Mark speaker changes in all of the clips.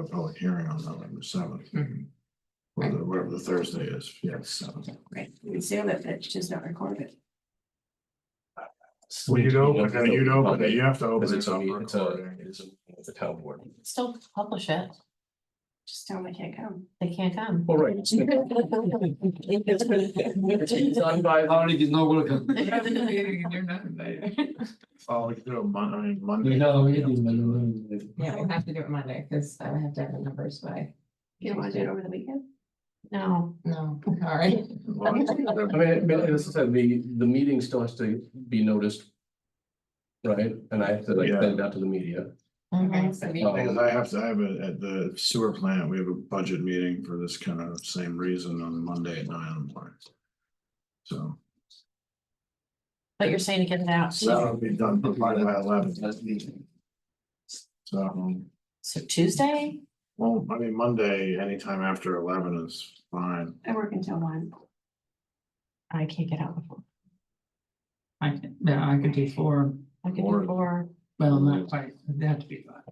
Speaker 1: a public hearing on November seventh.
Speaker 2: Mhm.
Speaker 1: Whether, wherever the Thursday is, yes.
Speaker 2: Great, you can seal it, but just not record it.
Speaker 1: Well, you'd open, it, you'd open, it, you have to open it
Speaker 3: It's a,
Speaker 1: up
Speaker 3: it's a,
Speaker 1: recording.
Speaker 3: it's a, it's a town board.
Speaker 4: Still publish it.
Speaker 2: Just tell them I can't come.
Speaker 4: They can't come.
Speaker 3: All right.
Speaker 1: Oh, we could do it Mon- I mean, Monday.
Speaker 4: Yeah, we'll have to do it Monday because I would have to have the numbers by.
Speaker 2: You don't want to do it over the weekend?
Speaker 4: No, no, sorry.
Speaker 1: Well,
Speaker 3: I mean, I mean, as I said, the, the meeting still has to be noticed. Right, and I have to like
Speaker 1: Yeah.
Speaker 3: send it out to the media.
Speaker 4: Mhm, so we-
Speaker 1: Because I have to, I have a, at the sewer plant, we have a budget meeting for this kind of same reason on Monday at nine o'clock. So,
Speaker 4: But you're saying to get it out.
Speaker 1: so that'll be done probably by eleven. So, um,
Speaker 4: So Tuesday?
Speaker 1: well, I mean, Monday, anytime after eleven is fine.
Speaker 2: I work until one.
Speaker 4: I can't get out before.
Speaker 5: I can, yeah, I could do four,
Speaker 4: I could
Speaker 1: Or-
Speaker 4: do four.
Speaker 5: well, not quite, it'd have to be five.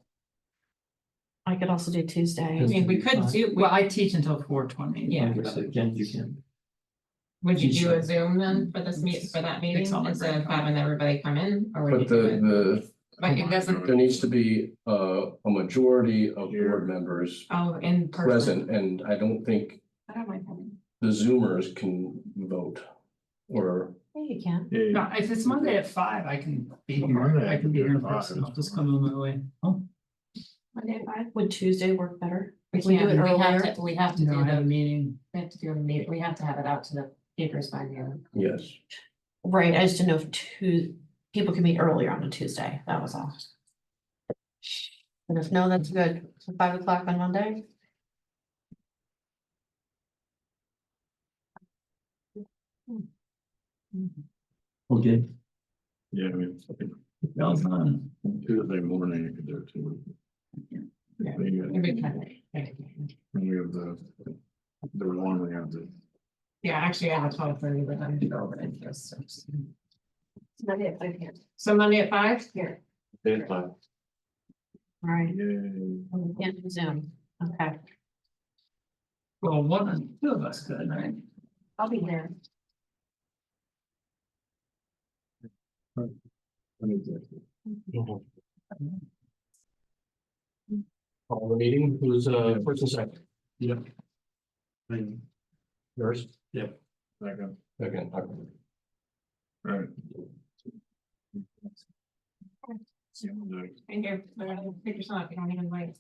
Speaker 4: I could also do Tuesday.
Speaker 5: I mean, we could do, well, I teach until four twenty.
Speaker 4: Yeah.
Speaker 6: Again, you can.
Speaker 4: Would
Speaker 6: you do a
Speaker 4: Zoom then for
Speaker 5: this meet- for that meeting instead of
Speaker 4: having everybody come in or
Speaker 3: But the,
Speaker 4: Like it
Speaker 3: the, there needs to be uh, a majority of board members
Speaker 4: oh, in
Speaker 3: present, and I don't think
Speaker 2: I don't mind coming.
Speaker 3: the Zoomers can vote. Or,
Speaker 4: Yeah, you can.
Speaker 1: Yeah,
Speaker 5: No, if it's Monday at five, I can be here,
Speaker 1: Monday,
Speaker 5: I can be here in
Speaker 1: five.
Speaker 5: person, I'll just come on my way. Oh,
Speaker 2: Monday at five,
Speaker 4: Would Tuesday work better?
Speaker 7: We
Speaker 4: If we do
Speaker 7: can't,
Speaker 4: it
Speaker 7: we
Speaker 4: earlier?
Speaker 7: have to, we have to do
Speaker 5: no, I have a
Speaker 7: the,
Speaker 5: meeting,
Speaker 7: we have to do a meet, we have to have it out to the papers by noon.
Speaker 3: yes,
Speaker 4: Right, I just didn't know if two, people can meet earlier on a Tuesday, that was all. And if no, that's good, So five o'clock on Monday?
Speaker 6: Okay,
Speaker 1: yeah, I mean, I think
Speaker 5: well, it's on.
Speaker 1: Tuesday morning, you could do it too.
Speaker 5: Yeah.
Speaker 1: Maybe,
Speaker 7: Every
Speaker 1: uh,
Speaker 7: time.
Speaker 1: We have the, the one we have to.
Speaker 7: Yeah, actually, I have twelve thirty, but I'm gonna go over it first.
Speaker 2: it's Monday at five p.m.
Speaker 7: So Monday at five?
Speaker 2: here.
Speaker 4: All right,
Speaker 1: Yay.
Speaker 4: yeah, Zoom, okay.
Speaker 5: Well, one, of- two of us could, right?
Speaker 2: I'll be there.
Speaker 1: Let me do it.
Speaker 6: call Mm-hmm. Oh, the meeting, who's uh first and second? Yep. Yours? Yep.
Speaker 1: Second,
Speaker 3: again. I-
Speaker 1: all right. See, I'm gonna do it.
Speaker 7: And here, figure it out, you don't even wait.